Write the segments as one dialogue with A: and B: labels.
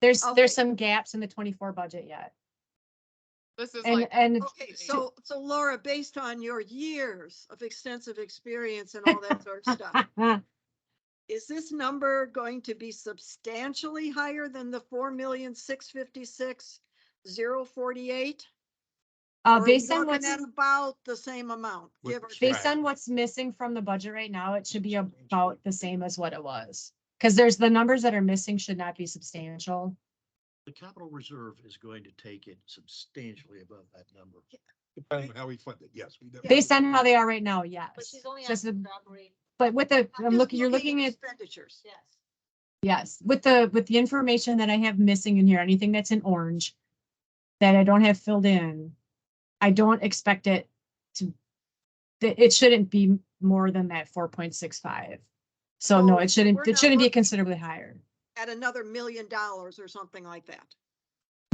A: There's,
B: Okay.
A: there's some gaps in the twenty-four budget yet.
C: This is
A: And,
C: like,
A: and
B: Okay, so, so Laura, based on your years of extensive experience and all that sort of
A: uh,
B: stuff, is this number going to be substantially higher than the four million, six fifty-six, zero forty-eight?
A: uh, based on what's,
B: At about the same amount,
D: What-
B: give or take.
A: based on what's missing from the budget right now, it should be about the same as what it was. Cause there's the numbers that are missing should not be substantial.
D: The capital reserve is going to take it substantially above that number.
E: Depending on how we fund it, yes. we definitely-
A: Based on how they are right now, yes.
F: But she's only
A: Just
F: asking
A: the-
F: for operating,
A: But with the, I'm
B: I'm just
A: looking, you're looking at,
B: Expenditures.
F: yes.
A: yes, with the, with the information that I have missing in here, anything that's in orange that I don't have filled in, I don't expect it to, that it shouldn't be more than that four point six five. So no,
B: So
A: it shouldn't,
B: Oh, we're
A: it
B: not
A: shouldn't be
B: looking-
A: considerably higher.
B: At another million dollars or something like that.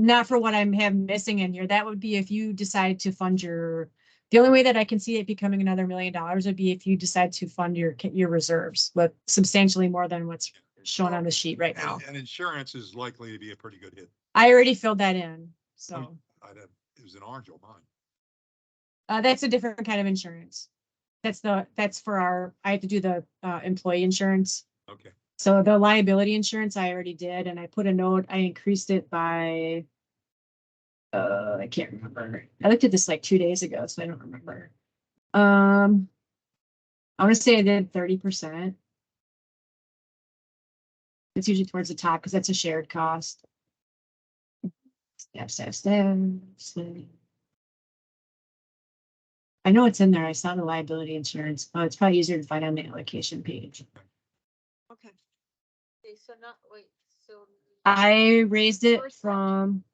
A: not for what I'm have missing in here. That would be if you decide to fund your, the only way that I can see it becoming another million dollars would be if you decide to fund your, ca- your reserves with substantially more than what's shown on the sheet right now.
E: And and insurance is likely to be a pretty good hit.
A: I already filled that in, so,
E: I'd have, it was an orange on mine.
A: uh, that's a different kind of insurance. That's the, that's for our, I have to do the, uh, employee insurance.
E: Okay.
A: So the liability insurance I already did, and I put a note, I increased it by, uh, I can't remember. I looked at this like two days ago, so I don't remember. Um, I want to say I did thirty percent. It's usually towards the top because that's a shared cost. Step, step, step. step. I know it's in there. I saw the liability insurance. Oh, it's probably easier to find on the allocation page.
B: Okay.
F: Okay, so not, wait, so.
A: I raised it
F: First budget.
A: from.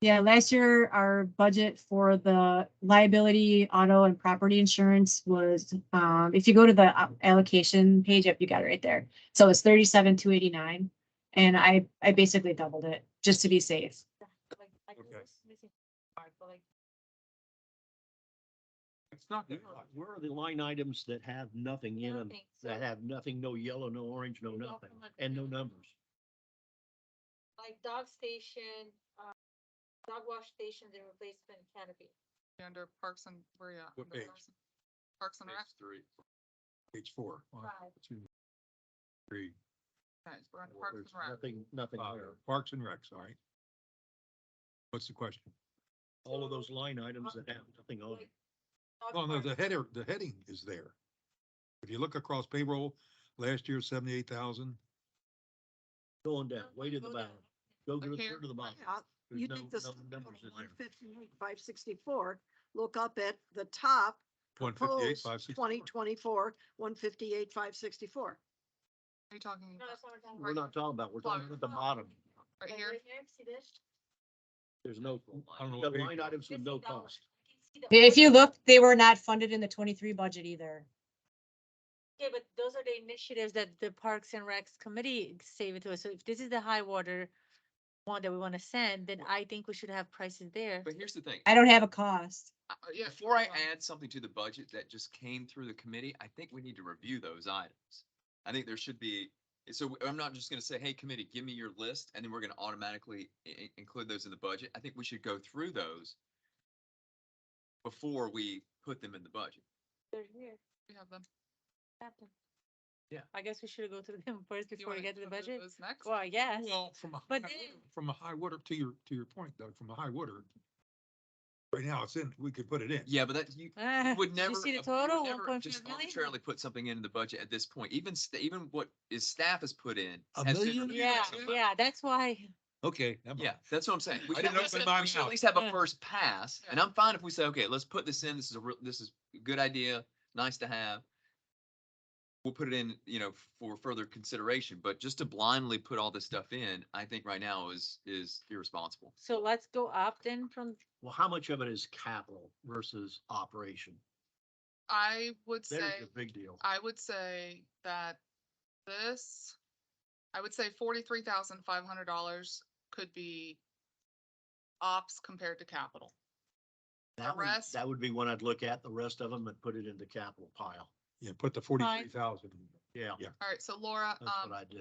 A: Yeah, last year, our budget for the liability, auto and property insurance was, um, if you go to the uh, allocation page up, you got it right there. So it's thirty-seven, two eighty-nine. And I, I basically doubled it just to be safe.
F: like, I knew
E: Okay.
F: this missing part, but like,
E: It's not.
F: good.
D: Where are the line items that have nothing in them,
F: nothing, so
D: that have nothing, no yellow, no orange, no
F: We go
D: nothing,
F: from a-
D: and no numbers?
F: Like dog station, uh, dog wash station, the replacement canopy.
C: under Parks and, where you at?
E: What
C: Under
E: page?
C: Parks and- Parks and Rec,
E: Page three. Page four. One,
F: Five.
E: two, three,
C: guys, we're on
E: Well,
C: Parks
E: there's
C: and Rec.
D: Nothing, nothing
E: five.
D: there.
E: Parks and Recs, all right. What's the question?
D: All of those line items that have nothing on it.
F: Like, dog
E: Well, Oh, no,
F: park.
E: the header, the heading is there. If you look across payroll, last year seventy-eight thousand,
D: Going down, way to the
F: Go
D: bottom.
F: down.
D: Go to the,
C: Okay.
D: go to the bottom.
B: Yeah,
D: There's
B: You
D: no-
B: take this
D: no numbers in there.
B: five sixty-four, look up at the top,
E: one fifty-eight,
B: proposed
E: five sixty.
B: twenty twenty-four, one fifty-eight, five sixty-four.
C: Are you talking
F: No, that's not what I'm
D: We're not talking about, we're talking
C: Plug.
D: about at the bottom.
C: right
F: Like,
C: here?
F: right here, see this?
D: There's no,
E: I don't know
D: the
E: what page
D: line
E: that
D: items
F: This
D: with
F: is
D: no
F: that one.
D: cost.
F: I can see the
A: If you
F: orange.
A: look, they were not funded in the twenty-three budget either.
F: Yeah, but those are the initiatives that the Parks and Recs committee saved to us. So if this is the high water one that we want to send, then I think we should have prices there.
G: But here's the thing.
A: I don't have a cost.
G: I-
C: Uh, yeah,
G: Before I
C: hold on.
G: add something to the budget that just came through the committee, I think we need to review those items. I think there should be, eh, so I'm not just gonna say, hey, committee, give me your list, and then we're gonna automatically i- i- include those in the budget. I think we should go through those before we put them in the budget.
F: They're here.
C: We have them.
F: Happen.
D: Yeah.
F: I guess we should go through them first
C: Do you
F: before we
C: wanna
F: get to the
C: go through
F: budget.
C: those Next.
F: Well, I guess.
E: Well, from a,
F: But
E: high-
F: then-
E: from a high water, to your, to your point, Doug, from a high water. Right now, it's in, we could put it in.
G: Yeah, but that, you
F: Ah,
G: would
F: did
G: never.
F: You see the
G: ap- you would
F: total, one
G: never
F: point
G: just
F: five million?
G: Arbitrarily put something in the budget at this point, even, st- even what is staff has put in.
D: A
G: has been
D: million?
G: reviewed at
F: Yeah,
G: some level.
F: yeah, that's why.
E: Okay. never
G: Yeah,
E: mind.
G: that's what I'm saying. We
E: I
G: should
E: didn't
G: at least-
E: open mine
G: we should at
E: out.
G: least have
F: Yeah.
G: a first pass, and
C: Yeah.
G: I'm fine if we say, okay, let's put this in, this is a, real- this is a good idea, nice to have. We'll put it in, you know, for further consideration, but just to blindly put all this stuff in, I think right now is, is irresponsible.
F: So let's go up then from,
D: Well, how much of it is capital versus operation?
C: I would
D: There's
C: say,
D: the big deal.
C: I would say that this, I would say forty-three thousand five hundred dollars could be ops compared to capital.
D: That would,
C: rest-
D: that would be one I'd look at, the rest of them and put it in the capital pile.
E: Yeah, put the forty-three thousand.
D: Yeah,
E: Yeah.
C: All right, so Laura,
D: that's what
C: um,
D: I do.